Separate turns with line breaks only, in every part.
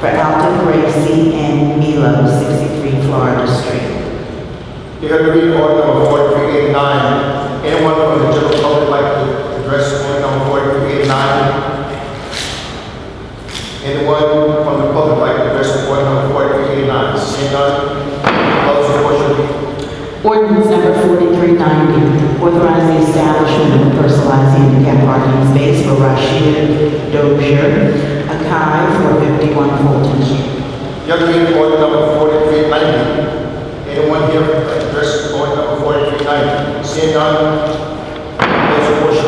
for Alden Gracie and Milo, 63 Florida Street.
You heard me read order number forty-three eighty-nine. Anyone from the general public like to address order number forty-three eighty-nine? Anyone from the public like to address order number forty-three eighty-nine? Seeing none, close the portion.
Ordinance number 4390, authorizing the establishment of personalized handicap parking space for Rashid Dozier, Akai, 451 Fulton Street.
You heard me read order number forty-three ninety. Anyone here like to address order number forty-three ninety? Seeing none, close the portion.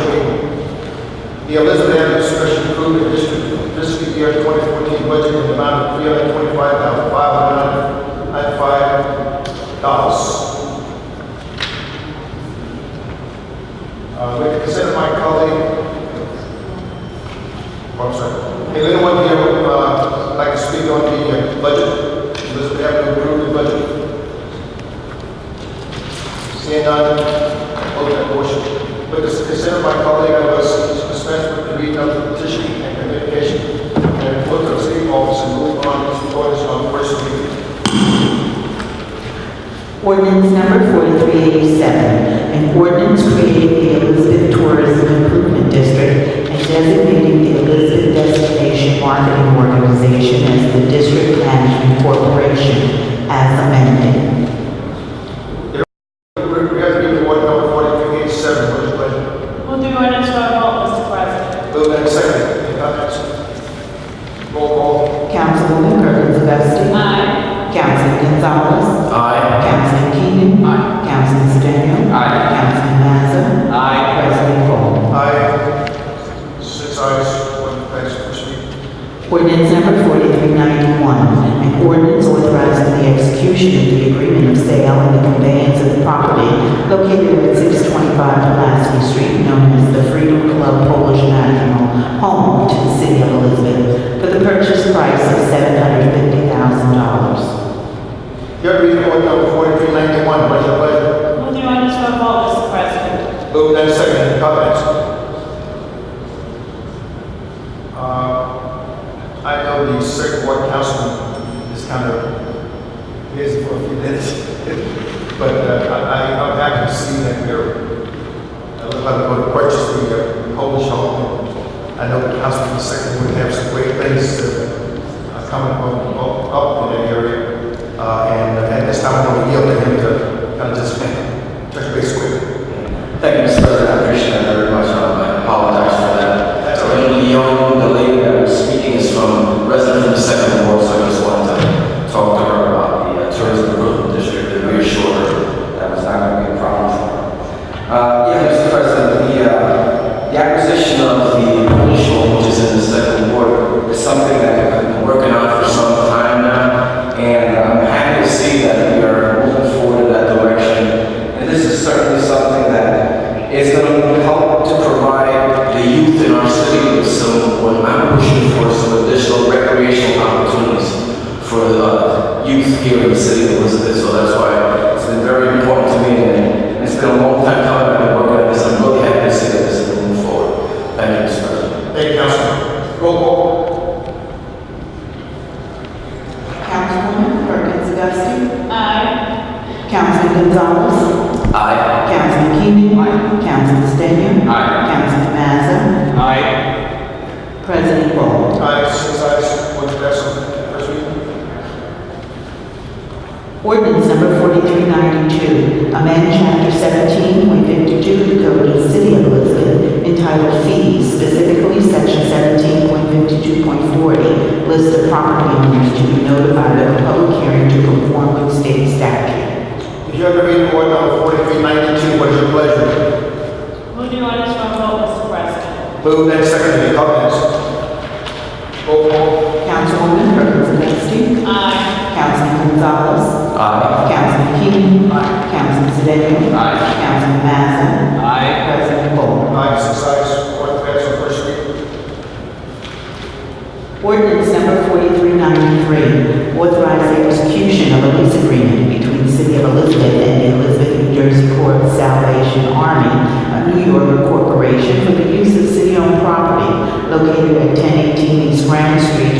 The Elizabeth Avenue Special Improvement District fiscal year 2014 budget in the amount of $325,595. Uh, With the consent of my colleague, oh, I'm sorry. Hey, anyone here would uh, like to speak on the uh, budget? Elizabeth Avenue approved the budget. Seeing none, hold that motion. With the consent of my colleague, I was dispensed with the reading of the petition and communication and put the city office and move on to orders on first reading.
Ordinance number 4387, an ordinance creating the Elizabeth Tourism Improvement District and designating the Elizabeth Destination Marketing Organization as the district management corporation as amended.
We we have to read order number forty-three eighty-seven, what is pleasure?
We'll do ordinance by vote, Mr. President.
Move and second, any comments? Roll call.
Councilwoman Perkins Dusting.
Aye.
Councilman Gonzalez.
Aye.
Councilman Keenan. Aye. Councilman Sedan.
Aye.
Councilman Mazza.
Aye.
President Cole.
Aye. Six ayes, one passed, first reading.
Ordinance number 4391, an ordinance authorizing the execution of the agreement of sale and the conveyance of the property located at 625 Pulaski Street, known as the Freedom Club Polish National Home to the City of Elizabeth, for the purchase price of $750,000.
You have to read order number forty-three ninety-one, what is your pleasure?
We'll do ordinance by vote, Mr. President.
Move and second, any comments? Uh, I know the second ward councilman is kind of busy for a few minutes, but uh, I, I, I'm happy to see that we're, I look like we're going to purchase the uh, Polish home. I know the councilman second would have some great things to uh, come up, up, up in that area. Uh, and at this time, I'm going to yield to him to kind of just uh, touch base quickly.
Thank you, Mr. President, I appreciate that very much, Um, I apologize for that.
That's all right.
Attorney Leon, the lady that was speaking is from, resident from the Second Ward, so I just wanted to talk to her about the uh, tourism improvement district and reassure her that it's not going to be a problem for her. Uh, yeah, Mr. President, the, uh, the acquisition of the Polish home, which is in the Second Ward, is something that I've been working on for some time now, and I'm happy to see that we are moving forward in that direction. And this is certainly something that is going to help to provide the youth in our city with some, what I'm pushing for, some additional recreational opportunities for the uh, youth here in the city of Elizabeth. So that's why it's been very important to me, and it's been a long time coming, I've been working on this, I'm really happy to see that this is moving forward. Thank you, Mr. President.
Thank you, Councilman. Roll call.
Councilwoman Perkins Dusting.
Aye.
Councilman Gonzalez.
Aye.
Councilman Keenan. Councilman Sedan.
Aye.
Councilman Mazza.
Aye.
President Cole.
Aye, six ayes, one absent. First reading.
Ordinance number 4392, amend chapter 17.52 of the Code of the City of Elizabeth entitled Fees, specifically section 17.52.40, list of property owners to be notified of a public hearing to conform with state statute.
If you have to read order number forty-three ninety-two, what is your pleasure?
We'll do ordinance by vote, Mr. President.
Move and second, any comments? Roll call.
Councilwoman Perkins Dusting.
Aye.
Councilman Gonzalez.
Aye.
Councilman Keenan. Councilman Sedan.
Aye.
Councilman Mazza.
Aye.
President Cole.
Aye, six ayes, one absent. First reading.
Ordinance number 4393, authorizing execution of a lease agreement between the City of Elizabeth and the Elizabeth, New Jersey Corps of Salvation Army, a New Yorker corporation for the use of city-owned property located at 1018 East Grand Street